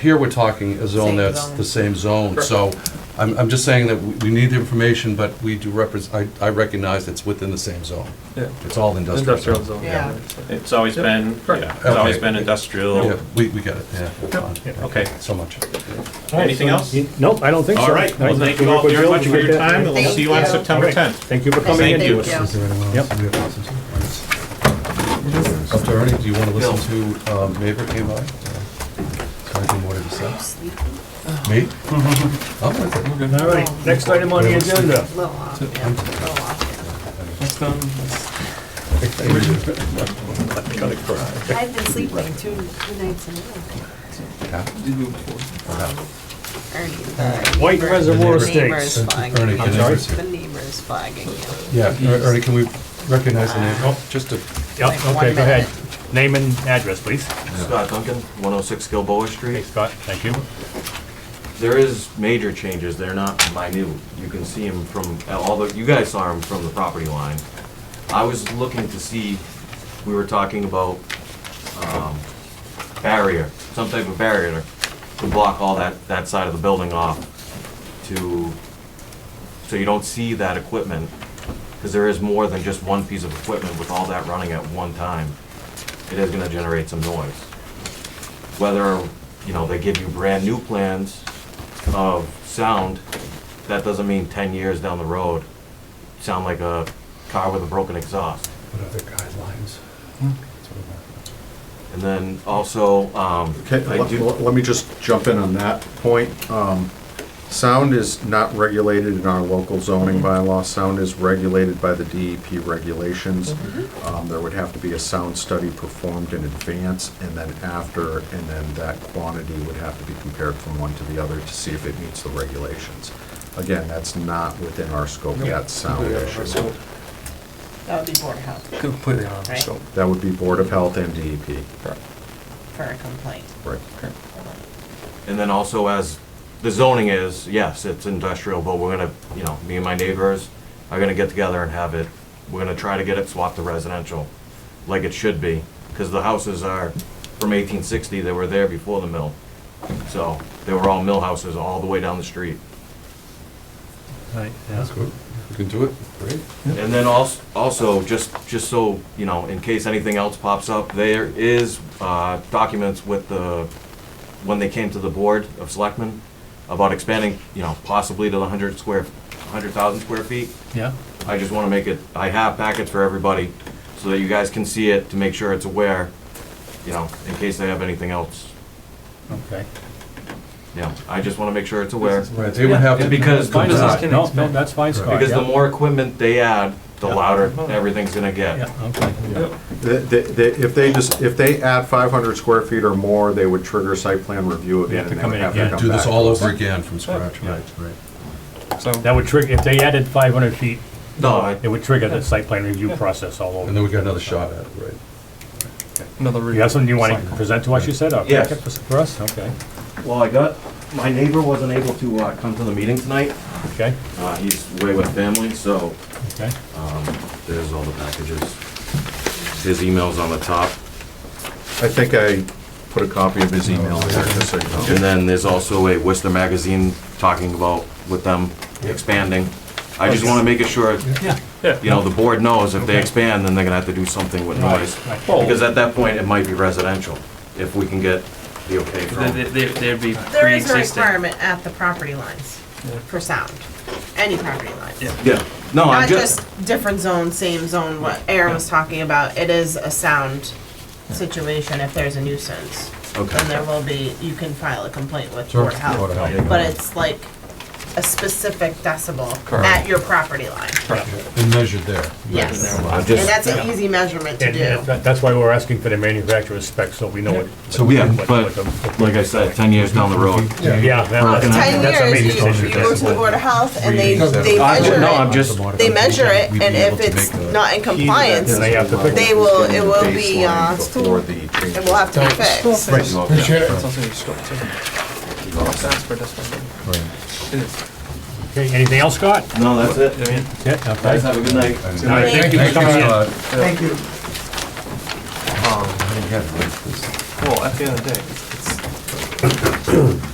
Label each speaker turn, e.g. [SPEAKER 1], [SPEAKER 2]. [SPEAKER 1] here we're talking a zone
[SPEAKER 2] Same
[SPEAKER 1] that's
[SPEAKER 2] zone.
[SPEAKER 1] the same zone, so I'm, I'm just saying that we we need the information, but we do represent, I, I recognize it's within the same zone.
[SPEAKER 3] Yeah.
[SPEAKER 1] It's all industrial.
[SPEAKER 3] Industrial zone.
[SPEAKER 2] Yeah.
[SPEAKER 4] It's always been,
[SPEAKER 3] Correct.
[SPEAKER 4] yeah, it's always
[SPEAKER 1] Okay.
[SPEAKER 4] been industrial.
[SPEAKER 1] Yeah, we, we get it, yeah.
[SPEAKER 4] Yeah, Okay,
[SPEAKER 1] So much.
[SPEAKER 4] anything else?
[SPEAKER 5] Nope, I don't think so.
[SPEAKER 4] All right, well,
[SPEAKER 5] I
[SPEAKER 4] thank you
[SPEAKER 5] think
[SPEAKER 4] all
[SPEAKER 5] we're
[SPEAKER 4] very
[SPEAKER 5] good.
[SPEAKER 4] much for your
[SPEAKER 5] Okay.
[SPEAKER 4] time, and we'll
[SPEAKER 2] Thank
[SPEAKER 4] see you on
[SPEAKER 2] you.
[SPEAKER 4] September
[SPEAKER 5] Okay.
[SPEAKER 4] 10th.
[SPEAKER 5] Thank you for coming in.
[SPEAKER 4] Thank you.
[SPEAKER 1] Is there anyone else?
[SPEAKER 5] Yep.
[SPEAKER 1] We have to listen to? Up to Ernie, do you want to listen to, um, Maverick came by? So I can order this up. Me? I'm with it.
[SPEAKER 5] All right, next item on the agenda.
[SPEAKER 2] Blow off, yeah,
[SPEAKER 4] um,
[SPEAKER 2] blow off. yeah. I've been sleeping two, two nights in a row.
[SPEAKER 1] Yeah.
[SPEAKER 2] Ernie, the
[SPEAKER 5] White
[SPEAKER 2] neighbor-
[SPEAKER 5] Reservoir
[SPEAKER 2] the neighbor's
[SPEAKER 5] Estates.
[SPEAKER 2] fogging
[SPEAKER 1] Ernie,
[SPEAKER 2] you.
[SPEAKER 1] can I see?
[SPEAKER 2] The neighbor's fogging you.
[SPEAKER 1] Yeah, Er- Ernie, can we recognize the name? Oh, just a,
[SPEAKER 5] Yep,
[SPEAKER 2] Like
[SPEAKER 5] okay,
[SPEAKER 2] one
[SPEAKER 5] go ahead.
[SPEAKER 2] minute.
[SPEAKER 5] Name and address, please.
[SPEAKER 6] Scott Duncan, 106 Gilboa
[SPEAKER 5] Hey,
[SPEAKER 6] Street.
[SPEAKER 5] Scott, thank you.
[SPEAKER 6] There is major changes, they're not minute. You can see them from, although you guys saw them from the property line. I was looking to see, we were talking about um, barrier, some type of barrier to block all that, that side of the building off to, so you don't see that equipment, because there is more than just one piece of equipment with all that running at one time. It is gonna generate some noise. whether, you know, they give you brand new plans of sound, that doesn't mean ten years down the road, sound like a car with a broken exhaust.
[SPEAKER 1] what other guidelines?
[SPEAKER 6] And then also, um,
[SPEAKER 7] Okay,
[SPEAKER 6] I
[SPEAKER 7] let-
[SPEAKER 6] do,
[SPEAKER 7] let let me just jump in on that point. Um, Sound is not regulated in our local zoning bylaw. Sound is regulated by the DEP regulations. Um, There would have to be a sound study performed in advance and then after, and then that quantity would have to be compared from one to the other to see if it meets the regulations. Again, that's not within our scope yet, sound issue.
[SPEAKER 2] That would be Board of Health
[SPEAKER 3] Completely on.
[SPEAKER 2] Right.
[SPEAKER 3] So,
[SPEAKER 7] That would be Board of Health and DEP.
[SPEAKER 2] for a complaint.
[SPEAKER 7] Right.
[SPEAKER 6] and then also as the zoning is, yes, it's industrial, but we're gonna, you know, me and my neighbors are gonna get together and have it, we're gonna try to get it swapped to residential, like it should be, because the houses are from eighteen sixty, they were there before the mill. So, they were all mill houses all the way down the street.
[SPEAKER 5] Right, yeah.
[SPEAKER 1] That's good. We can do it, great.
[SPEAKER 6] And then also, also, just, just so, you know, in case anything else pops up, there is, uh, documents with the, when they came to the Board of Selectmen about expanding, you know, possibly to the hundred square, hundred thousand square feet.
[SPEAKER 5] Yeah,
[SPEAKER 6] I just wanna make it, I have packets for everybody, so that you guys can see it, to make sure it's aware, you know, in case they have anything else.
[SPEAKER 5] okay.
[SPEAKER 6] Yeah, I just wanna make sure it's aware,
[SPEAKER 1] Right, they would have to.
[SPEAKER 6] because the
[SPEAKER 5] Fine,
[SPEAKER 6] more-
[SPEAKER 5] Scott. No, no, that's fine, Scott.
[SPEAKER 6] because the
[SPEAKER 5] yeah.
[SPEAKER 6] more equipment they add, the
[SPEAKER 5] Yeah.
[SPEAKER 6] louder everything's gonna get.
[SPEAKER 5] Yeah, okay.
[SPEAKER 7] The- the- the- If they just, if they add 500 square feet or more, they would trigger site plan review
[SPEAKER 5] They have
[SPEAKER 7] again.
[SPEAKER 5] to
[SPEAKER 7] and they
[SPEAKER 5] come
[SPEAKER 7] would
[SPEAKER 5] in
[SPEAKER 7] have to
[SPEAKER 5] again.
[SPEAKER 7] come
[SPEAKER 1] Do this
[SPEAKER 7] back.
[SPEAKER 1] all over again from scratch, right, right.
[SPEAKER 3] so
[SPEAKER 5] That would trigger, if they added 500 feet,
[SPEAKER 6] No, I,
[SPEAKER 5] it would trigger the site plan review process all
[SPEAKER 1] And
[SPEAKER 5] over.
[SPEAKER 1] then we got another shot at it, right?
[SPEAKER 3] another. re-
[SPEAKER 5] You have something you want to present to us, you said? or
[SPEAKER 6] Yes.
[SPEAKER 5] packet For for us, okay,
[SPEAKER 6] Well, I got, my neighbor wasn't able to uh, come to the meeting tonight.
[SPEAKER 5] okay,
[SPEAKER 6] Uh, He's away with family, so
[SPEAKER 5] okay.
[SPEAKER 6] there's all the packages. His email's on the top,
[SPEAKER 7] I think I put a copy of his email in there, just so you know.
[SPEAKER 6] and then there's also a Worcester magazine talking about with them expanding. I just want to make it sure, you know, the board knows if they expand, then they're gonna have to do something with noise.
[SPEAKER 5] Right, right.
[SPEAKER 6] Because at that point, it might be residential, if we can get the okay
[SPEAKER 4] There-
[SPEAKER 6] from.
[SPEAKER 4] there- there- There'd be
[SPEAKER 2] There is a
[SPEAKER 4] pre-existing.
[SPEAKER 2] requirement at the property lines for sound, any property line.
[SPEAKER 4] Yeah.
[SPEAKER 6] Yeah, no,
[SPEAKER 2] Not
[SPEAKER 6] I'm just,
[SPEAKER 2] just different zone, same zone, what Aaron was talking about, it is a sound situation if there's a nuisance. Then
[SPEAKER 6] okay,
[SPEAKER 2] there will be, you can file a complaint with
[SPEAKER 1] Sure.
[SPEAKER 2] Board of
[SPEAKER 1] Board of Health.
[SPEAKER 2] Health. But it's like a specific decibel at your property line.
[SPEAKER 1] And measured there.
[SPEAKER 2] Yes.
[SPEAKER 6] I'm
[SPEAKER 2] And
[SPEAKER 6] just,
[SPEAKER 2] that's an easy measurement to
[SPEAKER 5] And
[SPEAKER 2] do.
[SPEAKER 5] that- that's why we're asking for the manufacturer's specs, so we know what.
[SPEAKER 6] So we-
[SPEAKER 5] what-
[SPEAKER 6] Yeah,
[SPEAKER 5] what-
[SPEAKER 6] but-
[SPEAKER 5] what the-
[SPEAKER 6] like I said, 10 years down the road.
[SPEAKER 5] Yeah. that-
[SPEAKER 6] Ten
[SPEAKER 5] that's-
[SPEAKER 2] Ten
[SPEAKER 5] that's our main
[SPEAKER 2] years, you,
[SPEAKER 5] issue.
[SPEAKER 2] you go to the Board of Health and they,
[SPEAKER 1] Because
[SPEAKER 2] they
[SPEAKER 1] that's-
[SPEAKER 2] measure
[SPEAKER 6] No, I'm
[SPEAKER 2] it,
[SPEAKER 6] just-
[SPEAKER 2] they measure it, and if it's not in compliance,
[SPEAKER 5] Then they have to fix
[SPEAKER 2] they
[SPEAKER 5] it.
[SPEAKER 2] will, it will be, uh,
[SPEAKER 7] Baseline Before
[SPEAKER 2] it
[SPEAKER 7] the changes.
[SPEAKER 2] will have to be fixed.
[SPEAKER 6] Right.
[SPEAKER 3] It's also restricted. That's for this one. It is.
[SPEAKER 5] Okay, anything else, Scott?
[SPEAKER 6] No, that's it.
[SPEAKER 3] I mean,
[SPEAKER 5] Yeah,
[SPEAKER 6] Guys,
[SPEAKER 5] okay.
[SPEAKER 6] have a good night.
[SPEAKER 5] All right, thank you for coming in.
[SPEAKER 1] Thank
[SPEAKER 3] you.
[SPEAKER 1] Scott.
[SPEAKER 3] well, at the end of the day, it's- it's,